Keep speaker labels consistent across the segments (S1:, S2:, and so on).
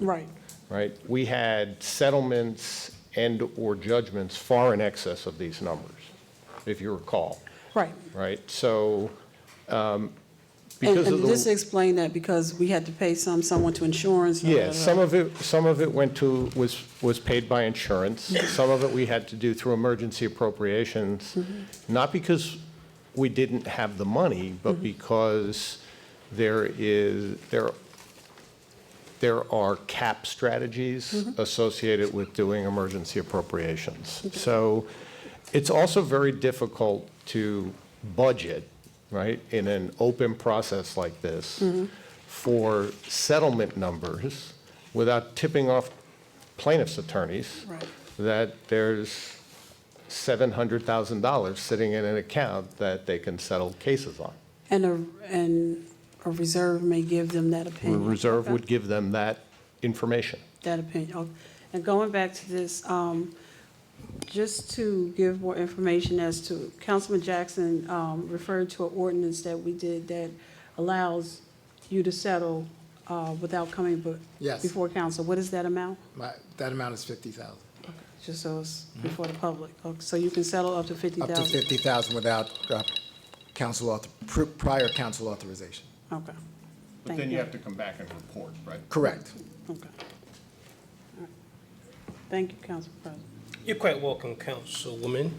S1: Right.
S2: right? We had settlements and/or judgments far in excess of these numbers, if you recall,
S1: Right.
S2: right? So um,
S1: And
S2: because of
S1: and just
S2: the,
S1: explain that, because we had to pay some, someone to insurance.
S2: yeah, some of it, some of it went to, was, was paid by insurance. Some of it we had to do through emergency appropriations,
S1: Mm-hmm.
S2: not because we didn't have the money, but because there is, there there are cap strategies associated with doing emergency appropriations. So it's also very difficult to budget, right, in an open process like this for settlement numbers without tipping off plaintiff's attorneys
S1: Right.
S2: that there's $700,000 sitting in an account that they can settle cases on.
S1: And a, and a reserve may give them that
S2: A
S1: opinion.
S2: reserve would give them that information.
S1: That opinion. Oh, And going back to this, um, just to give more information as to, Councilman Jackson um, referred to an ordinance that we did that allows you to settle uh, without coming be-
S3: Yes.
S1: before council. What is that amount?
S3: My, that amount is fifty thousand,
S1: Just so it's
S2: Mm-hmm.
S1: before the public. Okay, So you can settle up to fifty
S3: up to
S1: thousand?
S3: fifty thousand without uh, council author, pr- prior council authorization.
S1: Okay.
S4: But then you have to come back and report, right?
S3: Correct.
S1: Okay. All right. Thank you, Council President.
S5: You're quite welcome, Councilwoman.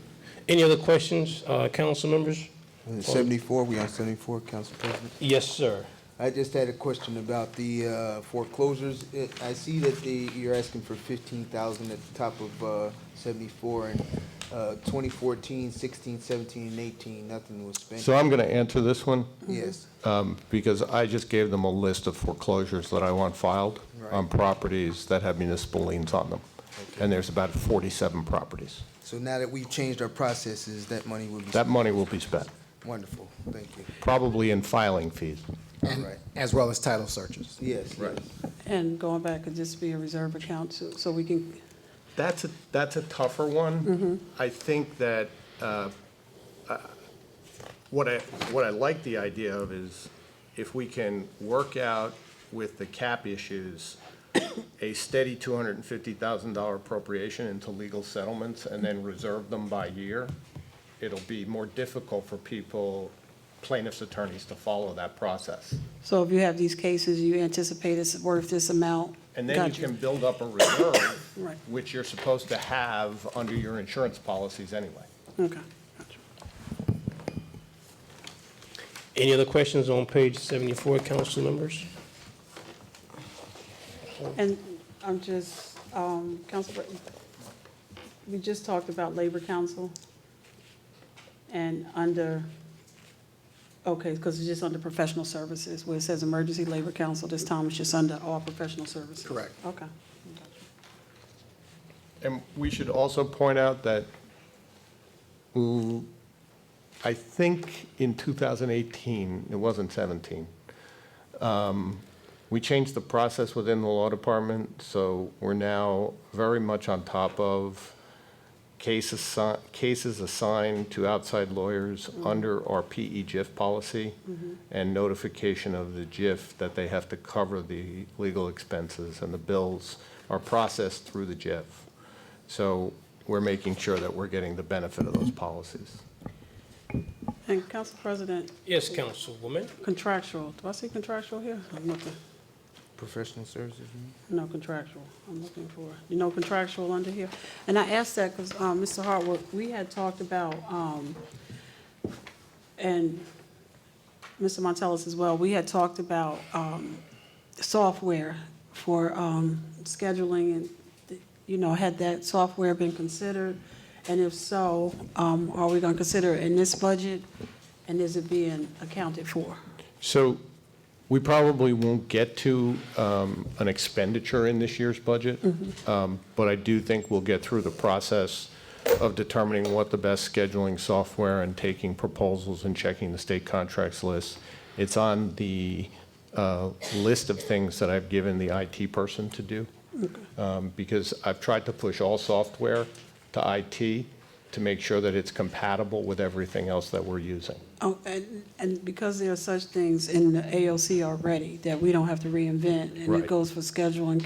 S5: Any other questions, uh, council members?
S6: Uh, 74, we on 74, Council President?
S5: Yes, sir.
S6: I just had a question about the uh, foreclosures. It- I see that the, you're asking for 15,000 at the top of uh, 74, and uh, 2014, 16, 17, and 18, nothing was spent.
S2: So I'm going to answer this one.
S6: Yes,
S2: um, because I just gave them a list of foreclosures that I want filed on
S6: Right.
S2: properties that have municipal liens on them. And there's about 47 properties.
S6: so now that we've changed our processes, that money will be
S2: That
S6: spent.
S2: money will be spent,
S6: Wonderful, thank you.
S2: probably in filing fees.
S3: And,
S6: Alright.
S3: as well as title searches.
S6: Yes, yes.
S1: And going back, could this be a reserve account too, so we can,
S2: That's, a that's a tougher one. I think that uh, uh, what I, what I like the idea of is if we can work out with the cap issues, a steady $250,000 appropriation into legal settlements and then reserve them by year, it'll be more difficult for people, plaintiffs' attorneys, to follow that process.
S1: so if you have these cases, you anticipate it's worth this amount?
S2: And then
S1: Got
S2: you can build up a reserve,
S1: Right.
S2: which you're supposed to have under your insurance policies anyway.
S1: Okay, gotcha.
S5: Any other questions on page 74, council members?
S1: And I'm just, um, Council, Pre- we just talked about Labor Council and under, okay, because it's just under professional services, where it says Emergency Labor Council, this time it's just under all professional services.
S3: Correct.
S1: Okay.
S2: And we should also point out that ooh, I think in 2018, it wasn't 17, um, we changed the process within the law department, so we're now very much on top of cases, assi- cases assigned to outside lawyers under our E PE GIF policy and notification of the GIF that they have to cover the legal expenses and the bills are processed through the GIF. So we're making sure that we're getting the benefit of those policies.
S1: And Council President,
S5: Yes, Councilwoman.
S1: contractual, do I see contractual here? I'm looking,
S6: Professional services, you mean?
S1: no contractual, I'm looking for, you know, contractual under here. And I asked that because, um, Mr. Hartwick, we had talked about, um, and Mr. Montellis as well, we had talked about, um, software for, um, scheduling and, you know, had that software been considered? And if so, um, are we gonna consider it in this budget? And is it being accounted for?
S2: So we probably won't get to um, an expenditure in this year's budget, um, but I do think we'll get through the process of determining what the best scheduling software and taking proposals and checking the state contracts list. It's on the uh, list of things that I've given the IT person to do, um, because I've tried to push all software to IT to make sure that it's compatible with everything else that we're using.
S1: Oh, and, and because there are such things in the AOC already that we don't have to reinvent, and it
S2: Right.
S1: goes for scheduling